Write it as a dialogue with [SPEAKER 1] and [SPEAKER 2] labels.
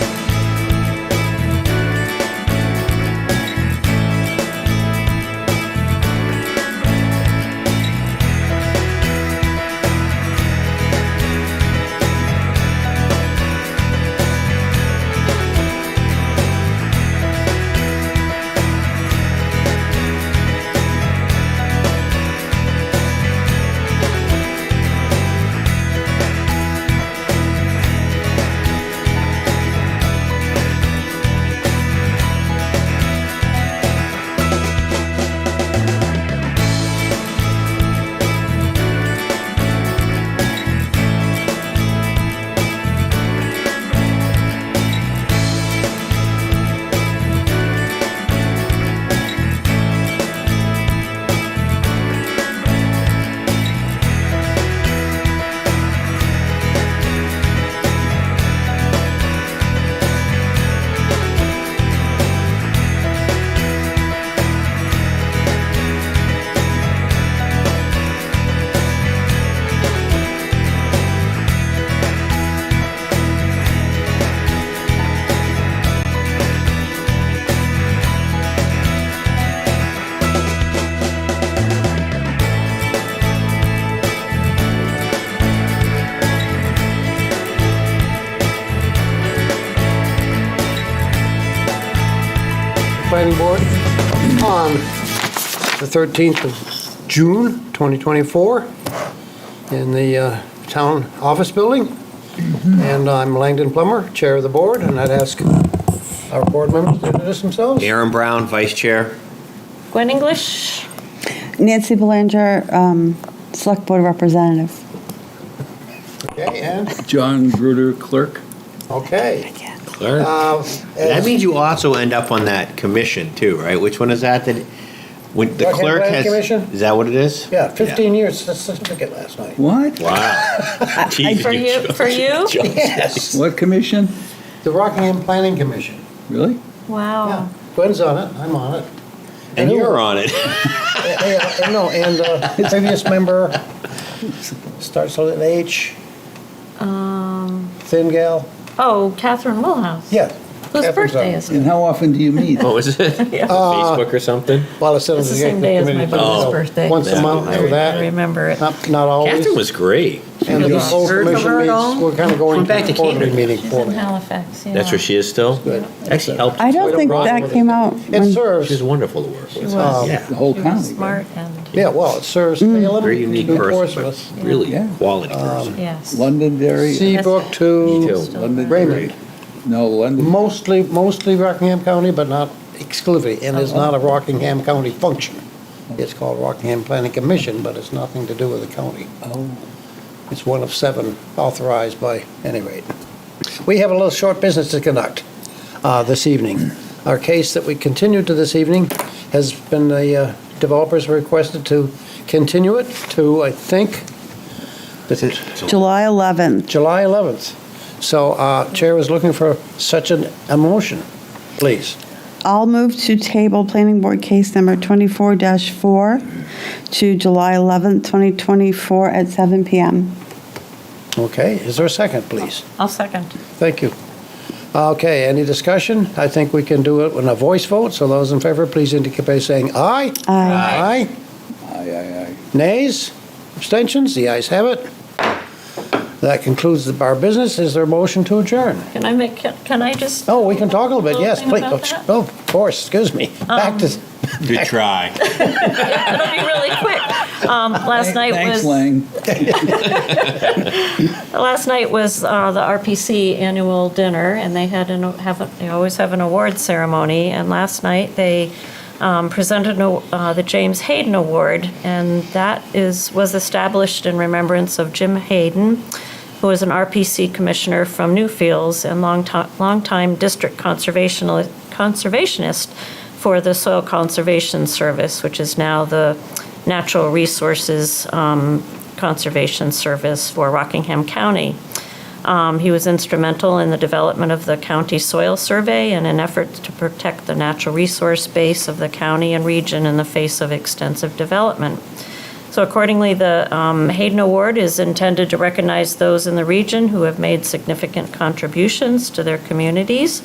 [SPEAKER 1] Planning Board on the 13th of June, 2024, in the uh, Town Office Building. And I'm Langdon Plummer, Chair of the Board, and I'd ask our board members to introduce themselves.
[SPEAKER 2] Aaron Brown, Vice Chair.
[SPEAKER 3] Gwen English.
[SPEAKER 4] Nancy Belanger, um, Select Board Representative.
[SPEAKER 1] Okay, and,
[SPEAKER 5] John Gruder, clerk.
[SPEAKER 1] okay.
[SPEAKER 2] Clerk.
[SPEAKER 1] Uh,
[SPEAKER 2] That means you also end up on that commission too, right? Which one is that? That when the
[SPEAKER 1] Rec and
[SPEAKER 2] clerk
[SPEAKER 1] Plan
[SPEAKER 2] has
[SPEAKER 1] Commission?
[SPEAKER 2] is that what it is?
[SPEAKER 1] Yeah, 15 years since certificate last night.
[SPEAKER 5] What?
[SPEAKER 2] Wow. Jesus,
[SPEAKER 3] For you, for you?
[SPEAKER 2] John.
[SPEAKER 1] Yes.
[SPEAKER 5] What commission?
[SPEAKER 1] The Rockingham Planning Commission.
[SPEAKER 5] Really?
[SPEAKER 1] Yeah,
[SPEAKER 3] Wow.
[SPEAKER 1] Gwen's on it, I'm on it.
[SPEAKER 2] And you're on it.
[SPEAKER 1] Yeah, yeah, No, and uh, the previous member starts with an H,
[SPEAKER 3] Um,
[SPEAKER 1] thin gal.
[SPEAKER 3] oh, Catherine Wilhouse.
[SPEAKER 1] Yeah.
[SPEAKER 3] Whose
[SPEAKER 1] Catherine's
[SPEAKER 3] birthday
[SPEAKER 1] on.
[SPEAKER 3] is
[SPEAKER 5] And
[SPEAKER 3] it?
[SPEAKER 5] how often do you meet?
[SPEAKER 2] What was Oh, it?
[SPEAKER 1] Uh,
[SPEAKER 2] Facebook or something?
[SPEAKER 1] Well, it's
[SPEAKER 3] It's the same day as my
[SPEAKER 2] Oh.
[SPEAKER 3] brother's birthday.
[SPEAKER 1] Once a
[SPEAKER 2] Yeah.
[SPEAKER 1] month
[SPEAKER 3] I
[SPEAKER 1] for
[SPEAKER 3] I
[SPEAKER 1] that,
[SPEAKER 3] remember it.
[SPEAKER 1] not, not always.
[SPEAKER 2] Catherine was great.
[SPEAKER 1] And the
[SPEAKER 3] Heard
[SPEAKER 1] full
[SPEAKER 3] from
[SPEAKER 1] commission
[SPEAKER 3] her at
[SPEAKER 1] meets,
[SPEAKER 3] all?
[SPEAKER 1] we're kind of going
[SPEAKER 2] Went back
[SPEAKER 1] to
[SPEAKER 2] to
[SPEAKER 1] quarterly
[SPEAKER 2] Cambridge.
[SPEAKER 1] meeting
[SPEAKER 3] She's
[SPEAKER 1] for
[SPEAKER 3] in
[SPEAKER 1] me.
[SPEAKER 3] Halifax, yeah.
[SPEAKER 2] That's where she is still.
[SPEAKER 1] Good.
[SPEAKER 2] Actually helped.
[SPEAKER 4] I don't think
[SPEAKER 1] wrong
[SPEAKER 4] that
[SPEAKER 1] with
[SPEAKER 4] came out.
[SPEAKER 1] It
[SPEAKER 4] when-
[SPEAKER 2] She's
[SPEAKER 1] serves,
[SPEAKER 2] wonderful to work
[SPEAKER 3] She
[SPEAKER 2] with.
[SPEAKER 3] was.
[SPEAKER 2] Yeah.
[SPEAKER 5] The whole
[SPEAKER 3] She was
[SPEAKER 5] county, right?
[SPEAKER 3] Smart and,
[SPEAKER 1] yeah, well, it serves Salem,
[SPEAKER 2] Mm. Very unique
[SPEAKER 1] New
[SPEAKER 2] person, but
[SPEAKER 1] Portsmouth,
[SPEAKER 2] really
[SPEAKER 5] Yeah.
[SPEAKER 2] quality
[SPEAKER 1] Um,
[SPEAKER 2] person.
[SPEAKER 3] yes.
[SPEAKER 5] Londonderry?
[SPEAKER 1] Seabrook
[SPEAKER 2] Me
[SPEAKER 1] to
[SPEAKER 2] too.
[SPEAKER 1] Raymond.
[SPEAKER 5] No, London.
[SPEAKER 1] Mostly, mostly Rockingham County, but not exclusively, and it's not a Rockingham County function. It's called Rockingham Planning Commission, but it's nothing to do with the county.
[SPEAKER 5] Oh,
[SPEAKER 1] It's one of seven authorized by any rate. We have a little short business to conduct uh, this evening. Our case that we continue to this evening has been, the uh, developers requested to continue it to, I think,
[SPEAKER 4] July 11th.
[SPEAKER 1] July 11th. So uh, Chair is looking for such an, a motion, please.
[SPEAKER 4] I'll move to table Planning Board Case Number 24-4 to July 11th, 2024 at 7 PM.
[SPEAKER 1] Okay, is there a second, please?
[SPEAKER 3] I'll second.
[SPEAKER 1] Thank you. Okay, any discussion? I think we can do it in a voice vote, so those in favor, please indicate by saying aye.
[SPEAKER 4] Aye.
[SPEAKER 1] Aye.
[SPEAKER 5] aye, aye, aye.
[SPEAKER 1] Nays? Abstentions? The ayes have it. That concludes the bar business. Is there a motion to adjourn?
[SPEAKER 3] Can I make, can can I just?
[SPEAKER 1] Oh, we can talk a little bit,
[SPEAKER 3] Little
[SPEAKER 1] yes,
[SPEAKER 3] thing
[SPEAKER 1] please.
[SPEAKER 3] about that? Um,
[SPEAKER 1] Oh, Of course, excuse me. Back to,
[SPEAKER 2] Good try.
[SPEAKER 3] It'll be really quick. Um, last night was.
[SPEAKER 5] Thanks, Lang.
[SPEAKER 3] Last night was uh, the RPC annual dinner, and they had an, have, a- they always have an award ceremony. And last night, they um, presented an aw- uh, the James Hayden Award, and that is, was established in remembrance of Jim Hayden, who was an RPC commissioner from Newfields and longtime, longtime district conservational- conservationist for the Soil Conservation Service, which is now the Natural Resources um, Conservation Service for Rockingham County. Um, He was instrumental in the development of the county soil survey and in efforts to protect the natural resource base of the county and region in the face of extensive development. So accordingly, the um, Hayden Award is intended to recognize those in the region who have made significant contributions to their communities